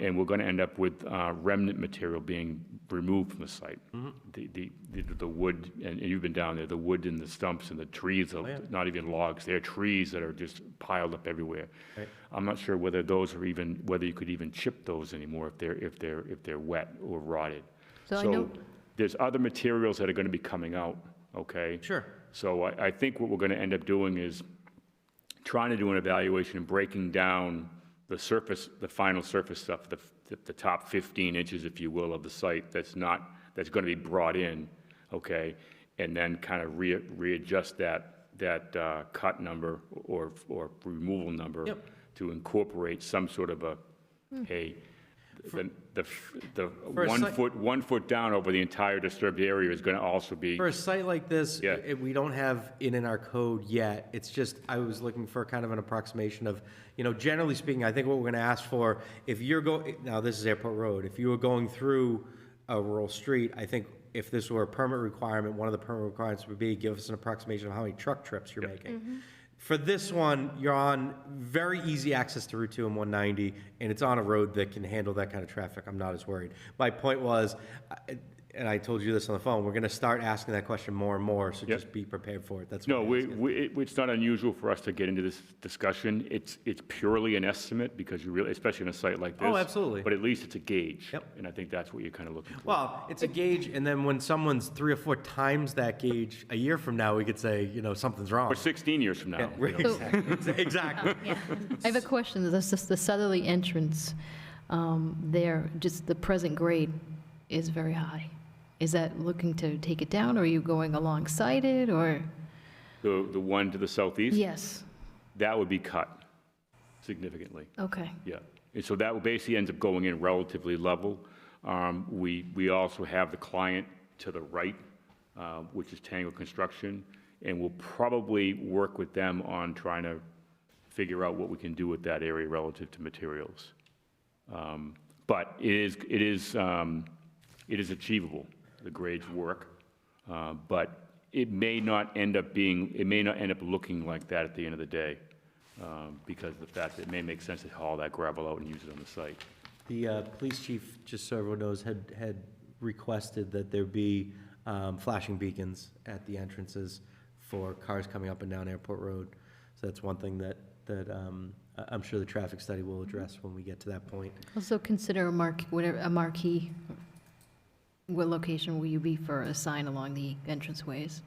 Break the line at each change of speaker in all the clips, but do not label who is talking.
and we're going to end up with uh, remnant material being removed from the site. The, the, the the wood, and you've been down there, the wood and the stumps and the trees, are not even logs, they're trees that are just piled up everywhere. I'm not sure whether those are even, whether you could even chip those anymore if they're, if they're, if they're wet or rotted.
So I know-
There's other materials that are going to be coming out, okay?
Sure.
So I, I think what we're going to end up doing is trying to do an evaluation and breaking down the surface, the final surface stuff, the, the top 15 inches, if you will, of the site that's not, that's going to be brought in, okay? And then kind of re, readjust that, that uh, cut number or, or removal number
Yep. Hmm.
to incorporate some sort of a, a, the, the, the
For a
one
site-
foot, one foot down over the entire disturbed area is going to also be,
For a site like this,
Yeah.
it- we don't have it in our code yet. It's just, I was looking for kind of an approximation of, you know, generally speaking, I think what we're gonna ask for, if you're going, now this is Airport Road, if you were going through a rural street, I think if this were a permit requirement, one of the permit requirements would be give us an approximation of how many truck trips you're making. For this one, you're on very easy access to Route 2 and 190, and it's on a road that can handle that kind of traffic. I'm not as worried. My point was, I- and I told you this on the phone, we're going to start asking that question more and more, so just be prepared for it. That's
no,
what I'm
we,
asking.
we, it- it's not unusual for us to get into this discussion. It's, it's purely an estimate because you really, especially in a site like this.
Oh, absolutely.
But at least it's a gauge.
Yep.
And I think that's what you're kind of looking for.
Well, it's a gauge, and then when someone's three or four times that gauge, a year from now, we could say, you know, something's wrong.
Or 16 years from now. you know.
So-
Exactly. Exactly.
I have a question, that's just the southerly entrance um, there, just the present grade is very high. Is that looking to take it down, or are you going alongside it, or?
The, the one to the southeast?
Yes,
That would be cut significantly.
okay.
Yeah, and so that basically ends up going in relatively level. Um, We, we also have the client to the right, uh, which is Tango Construction, and we'll probably work with them on trying to figure out what we can do with that area relative to materials. Um, But it is, it is, um, it is achievable, the grades work, Uh, but it may not end up being, it may not end up looking like that at the end of the day um, because of the fact that it may make sense to haul that gravel out and use it on the site.
The uh, police chief, just so everyone knows, had, had requested that there be um, flashing beacons at the entrances for cars coming up and down Airport Road. So that's one thing that, that um, I- I'm sure the traffic study will address when we get to that point.
Also consider a mark, whatever, a marquee, what location will you be for a sign along the entranceways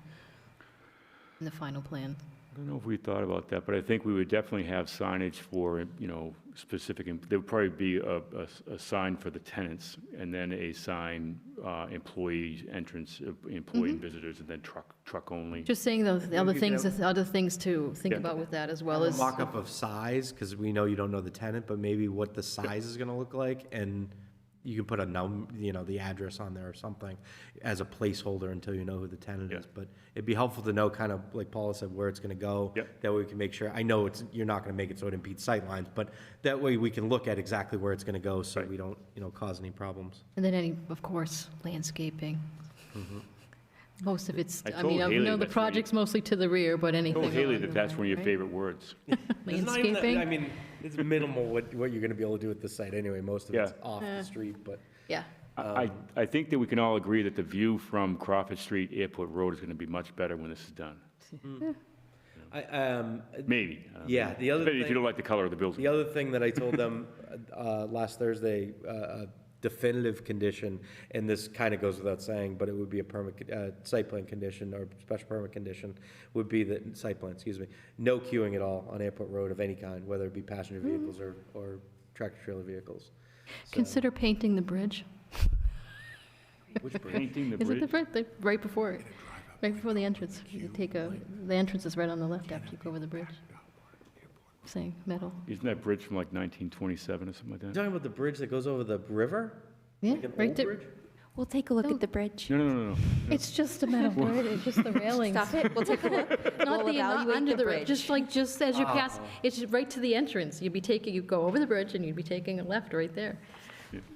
in the final plan?
I don't know if we thought about that, but I think we would definitely have signage for, you know, specific, there would probably be a, a s- a sign for the tenants, and then a sign, uh, employee entrance, uh, employee and visitors, and then truck, truck only.
Mm-hmm. Just saying those, the other
you
things, the other things to think
Yeah.
about with that as well
A
as,
mock-up of size, because we know you don't know the tenant, but maybe what the size is gonna look like, and you can put a num, you know, the address on there or something as a placeholder until you know who the tenant is.
Yeah.
But it'd be helpful to know kind of, like Paula said, where it's gonna go.
Yep.
That way we can make sure, I know it's, you're not gonna make it so it impedes sightlines, but that way we can look at exactly where it's gonna go, so we don't, you know, cause any problems.
and then any, of course, landscaping. Most of it's,
Mm-hmm. I
I
told
mean, I
Haley
know the
that's where you-
project's mostly to the rear, but anything.
Oh, Haley,
along
that
the
that's
way,
one of your
right?
favorite words.
I
Landscaping,
mean, it's minimal what, what you're gonna be able to do with this site anyway, most of
it's
it's
Yeah.
off the street, but.
yeah.
I,
Um,
I I think that we can all agree that the view from Crawford Street Airport Road is gonna be much better when this is done. Mm-hmm.
I, um,
Maybe. I don't know.
Yeah, the other
Depending If you
thing-
don't like the color of the building.
The other thing that I told them uh, last Thursday, uh, a definitive condition, and this kind of goes without saying, but it would be a permit, con- uh, site plan condition or special permit condition, would be that, site plan, excuse me, no queuing at all on Airport Road of any kind, whether it be passenger
Hmm.
vehicles or, or tractor trailer vehicles. So-
Consider painting the bridge.
Which Painting the
Is it the
bridge.
bridge, the- right before, it, right before the entrance? You take a, the entrance is right on the left after you go over the bridge. Saying metal,
Isn't that bridge from like 1927 or something like
You
that?
Talking about the bridge that goes over the river?
yeah,
Like an
right
old
there.
bridge?
We'll take a look
No.
at the bridge.
No, no, no, no.
It's just a metal bridge, it's just the railings.
Stop it. We'll take a look.
Not
We'll
the, not
evaluate
under
the
the, ri-
bridge.
just like, just as you pass,
Oh.
it's right to the entrance. You'd be taking, you go over the bridge and you'd be taking a left right there.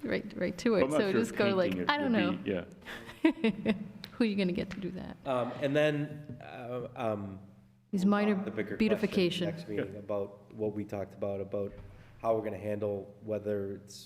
Right, right to
I'm
it,
not
so
sure
just go like,
painting it
I don't know,
would be- Yeah.
who are you gonna get to do that?
Um, And then, uh, um,
These minor
the bigger question
beautification.
Next meeting about what we talked about, about how we're gonna handle, whether it's